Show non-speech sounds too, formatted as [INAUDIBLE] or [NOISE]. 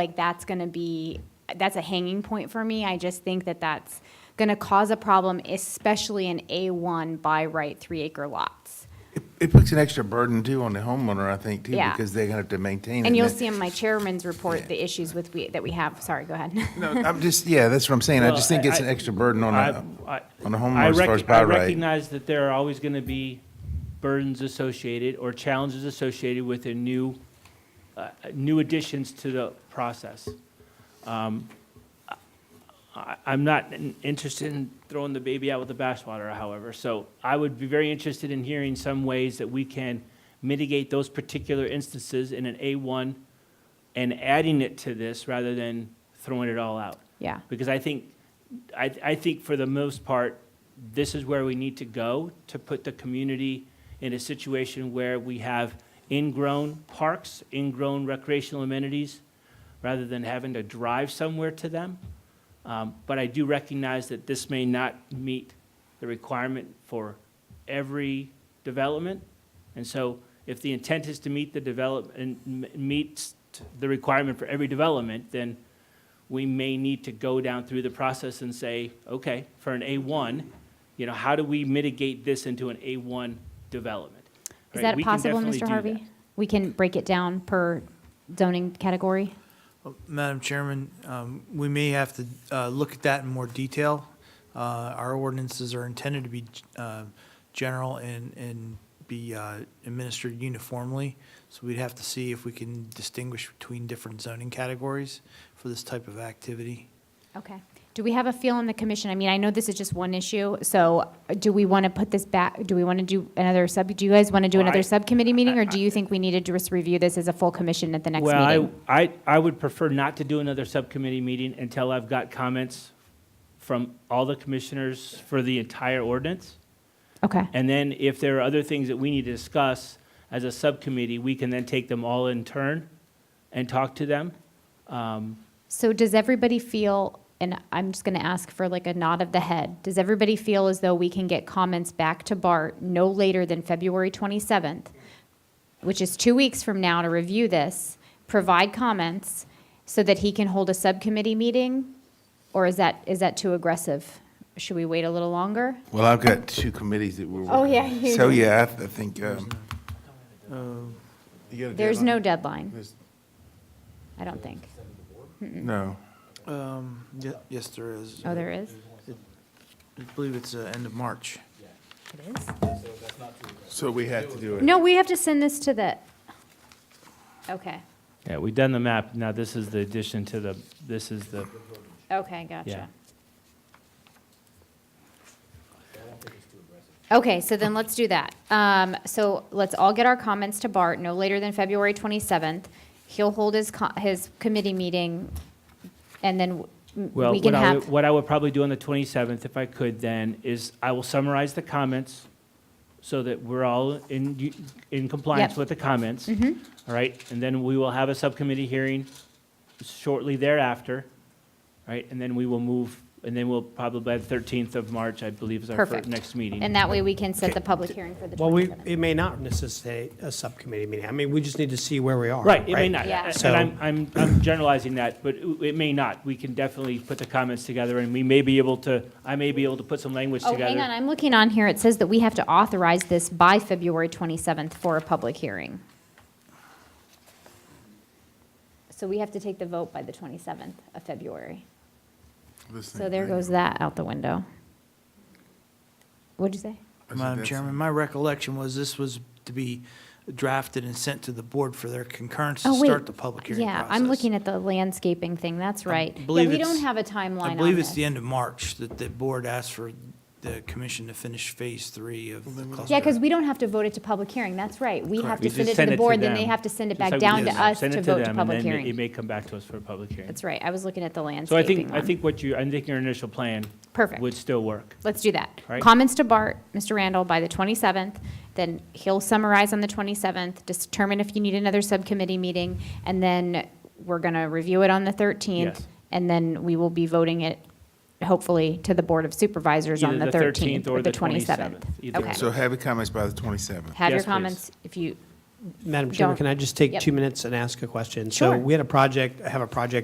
like that's going to be, that's a hanging point for me. I just think that that's going to cause a problem, especially in A1 by right three acre lots. It- It puts an extra burden too on the homeowner, I think, too, Yeah. because they're gonna have to maintain it. And you'll then- see in my chairman's report, the issues with, we that we have, sorry, go ahead. [LAUGHS] No, I'm just, yeah, that's what I'm saying. I just think it's an extra burden on I- a, I- on a I homeowner as far as rec- by I right. recognize that there are always going to be burdens associated or challenges associated with a new, uh, new additions to the process. Um, I- I'm not in- interested in throwing the baby out with the bathwater, however, so I would be very interested in hearing some ways that we can mitigate those particular instances in an A1 and adding it to this rather than throwing it all out Yeah, because I think, I, I think for the most part, this is where we need to go to put the community in a situation where we have ingrown parks, ingrown recreational amenities, rather than having to drive somewhere to them. Um, But I do recognize that this may not meet the requirement for every development. And so if the intent is to meet the develop, and m- meets the requirement for every development, then we may need to go down through the process and say, okay, for an A1, you know, how do we mitigate this into an A1 development? is Right? that We can possible, definitely Mr. do Harvey? that. We can break it down per zoning category? Well, Madam Chairman, um, we may have to uh, look at that in more detail. Uh, Our ordinances are intended to be uh, general and, and be uh, administered uniformly, so we'd have to see if we can distinguish between different zoning categories for this type of activity. Okay. Do we have a feel on the commission? I mean, I know this is just one issue, so uh, do we want to put this back, do we want to do another sub, do you guys want to do Well, I- another subcommittee meeting, or I- do you think we need to just review this as a full commission at the next Well, meeting? I, I, I would prefer not to do another subcommittee meeting until I've got comments from all the commissioners for the entire ordinance. Okay, And then if there are other things that we need to discuss as a subcommittee, we can then take them all in turn and talk to them. Um, so does everybody feel, and I'm just going to ask for like a nod of the head, does everybody feel as though we can get comments back to Bart no later than February 27th, which is two weeks from now to review this, provide comments, so that he can hold a subcommittee meeting? Or is that, is that too aggressive? Should we wait a little longer? Well, I've got two committees that we're working Oh, on. yeah, you So, do. yeah, I I think, um. You got a There's no deadline? deadline, There's- I don't think. No. Um, ye- Yes, there is. Oh, there is? I believe it's the end of March. It is? So we have to do it. No, we have to send this to the, okay, Yeah, we've done the map. Now, this is the addition to the, this is the, okay, yeah. gotcha. Okay, so then let's do that. Um, so let's all get our comments to Bart no later than February 27th. He'll hold his, co- his committee meeting, and then w- Well, we can what I, have, would- what I would probably do on the 27th, if I could then, is I will summarize the comments so that we're all in, u- in compliance Yep. Mm-hmm. with the comments. All right, and then we will have a subcommittee hearing shortly thereafter, right? And then we will move, and then we'll probably by the 13th of March, I believe, is our fir- Perfect. next meeting. and that way we can set the public hearing for the Well, we, 27th. it may not necessitate a subcommittee meeting. I mean, we just need to see where we are. Right, it may not. Yeah. And So- I'm, I'm, I'm generalizing that, but it it may not. We can definitely put the comments together, and we may be able to, I may be able to put some language Oh, together. hang on, I'm looking on here, it says that we have to authorize this by February 27th for a public hearing. So we have to take the vote by the 27th of February. This So thing- there goes that out the window. What'd you say? I said Madam that's- Chairman, my recollection was this was to be drafted and sent to the board for their concurrence to Oh, wait. start the public hearing process. Yeah, I'm looking at the landscaping thing, that's right. Yeah, believe we don't it's- have a timeline I on believe it's this. the end of March that the board asked for the commission to finish phase three of the cluster. Yeah, because we don't have to vote it to public hearing, that's right. We have Correct. to We send just it to the board, then them. they have to send it Just back like we down to just us send to it vote them, to and public then It hearing. may come back to us for a public hearing. That's right, I was looking at the So I landscaping think, I one. think what you, I think your initial plan Perfect. would still work. Let's do that. Right. Comments to Bart, Mr. Randall, by the 27th, then he'll summarize on the 27th, determine if you need another subcommittee meeting, and then we're going to review it on the 13th. Yes. And then we will be voting it, hopefully, to the Board of Supervisors on Either the 13th or the 27th. Either Okay. one. So have your comments by the twenty-seventh. Have your Yes, please. comments, if you, Madam Chairman, Don't. can I just take Yep. two minutes and ask a question? Sure. So we had a project, I have a project